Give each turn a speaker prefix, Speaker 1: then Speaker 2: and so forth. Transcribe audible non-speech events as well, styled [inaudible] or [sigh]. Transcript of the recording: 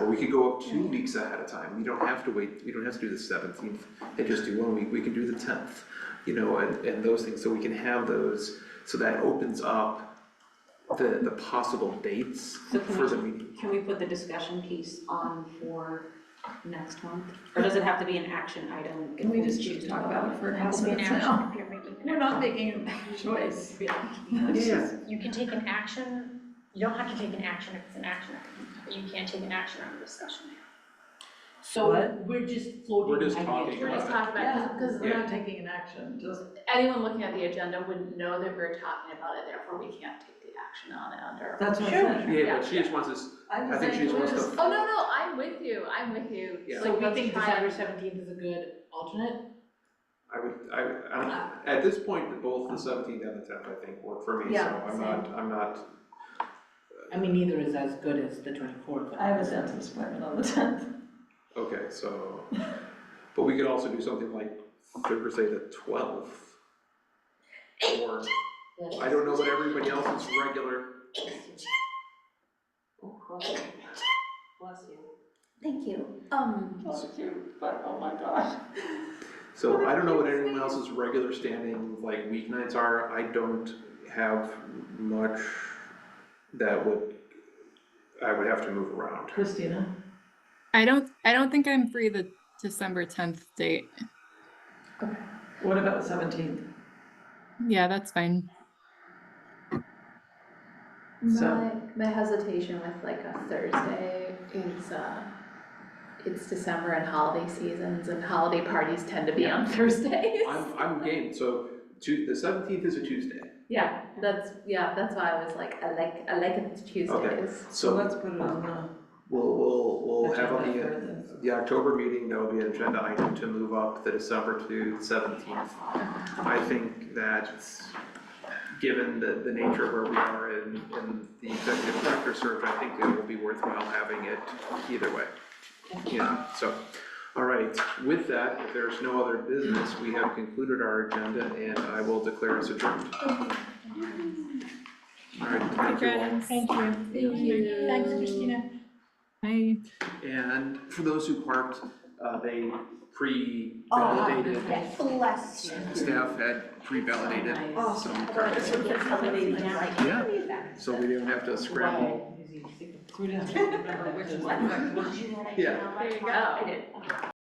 Speaker 1: Or we could go up two weeks ahead of time, you don't have to wait, you don't have to do the seventeenth, and just do one week, we can do the tenth, you know, and, and those things, so we can have those, so that opens up the, the possible dates
Speaker 2: So can
Speaker 1: for the
Speaker 2: we-
Speaker 1: meeting.
Speaker 2: Can we put the discussion piece on for next month? Or does it have to be an action item?
Speaker 3: Can we just keep talking about it for a couple minutes now?
Speaker 4: You're making an
Speaker 3: [laughs] We're not making a choice.
Speaker 1: Yeah,
Speaker 4: action. You can take an action, you don't have to take an action if it's an action item, but you can take an action on the discussion.
Speaker 5: So we're just floating
Speaker 1: We're
Speaker 5: ideas.
Speaker 1: just talking
Speaker 4: We're just
Speaker 1: about
Speaker 4: talking about,
Speaker 3: Yeah,
Speaker 4: it.
Speaker 3: because we're not taking an action, just,
Speaker 4: anyone looking at the agenda would know that we're talking about it, therefore we can't take the action on it under.
Speaker 3: that's what I'm
Speaker 5: Sure.
Speaker 3: saying.
Speaker 1: it. Yeah, but she just wants us,
Speaker 3: I'm
Speaker 1: I
Speaker 3: just
Speaker 1: think she
Speaker 3: saying,
Speaker 1: just
Speaker 3: we're
Speaker 1: wants
Speaker 3: just,
Speaker 1: to,
Speaker 4: Oh, no, no, I'm with you, I'm with you.
Speaker 1: Yeah.
Speaker 5: So we
Speaker 4: Let's
Speaker 5: think
Speaker 4: try
Speaker 5: December
Speaker 4: it.
Speaker 5: seventeenth is a good alternate?
Speaker 1: I would, I, I, don't- at this point, both the seventeenth and the tenth, I think, work for me, so
Speaker 3: Yeah,
Speaker 1: I'm
Speaker 3: same.
Speaker 1: not, I'm not,
Speaker 5: I mean, neither is as good as the twenty-fourth.
Speaker 3: I have a dentist appointment on the tenth.
Speaker 1: okay, so. But we could also do something like Thursday the twelfth. Or, I don't know what everybody else's regular
Speaker 2: Oh,
Speaker 5: Bless you.
Speaker 6: Thank you. Um,
Speaker 1: oh So I don't know what anyone else's regular standing like weeknights are, I don't have much that would, I would have to move around.
Speaker 3: Christina?
Speaker 7: I don't I don't think I'm free the December 10th date.
Speaker 3: What about the seventeenth?
Speaker 7: Yeah, that's fine.
Speaker 3: So-
Speaker 8: My, my hesitation with like a Thursday is, uh, it's December and holiday seasons and holiday parties tend to be on Thursdays.
Speaker 1: I'm, I'm game, so Tu- the seventeenth is a Tuesday,
Speaker 8: [laughs] Yeah, that's, yeah, that's why I was like, I like, I like it Tuesdays.
Speaker 3: So
Speaker 1: so
Speaker 3: let's put it on
Speaker 1: we'll, we'll,
Speaker 3: the.
Speaker 1: we'll have on
Speaker 3: agenda
Speaker 1: the,
Speaker 3: for this.
Speaker 1: the October meeting, there will be an agenda item to move up the December to seventeenth. I think that, given the, the nature of where we are in, in the executive director search, I think it will be worthwhile having it either way. Yeah, so, all right, with that, if there's no other business, we have concluded our agenda and I will declare us adjourned. All right, thank you all.
Speaker 6: thank you. Thank you. Thanks, Christina.
Speaker 7: Bye.
Speaker 1: And for those who parked, uh, they
Speaker 5: Oh,
Speaker 1: pre-validated,
Speaker 2: Oh,
Speaker 5: yes.
Speaker 6: Bless you.
Speaker 1: staff had pre-validated some cards. Yeah, so we didn't have to scramble.
Speaker 2: [laughs]
Speaker 5: Wow. So we didn't have to remember which one.
Speaker 1: Yeah.
Speaker 4: There you go.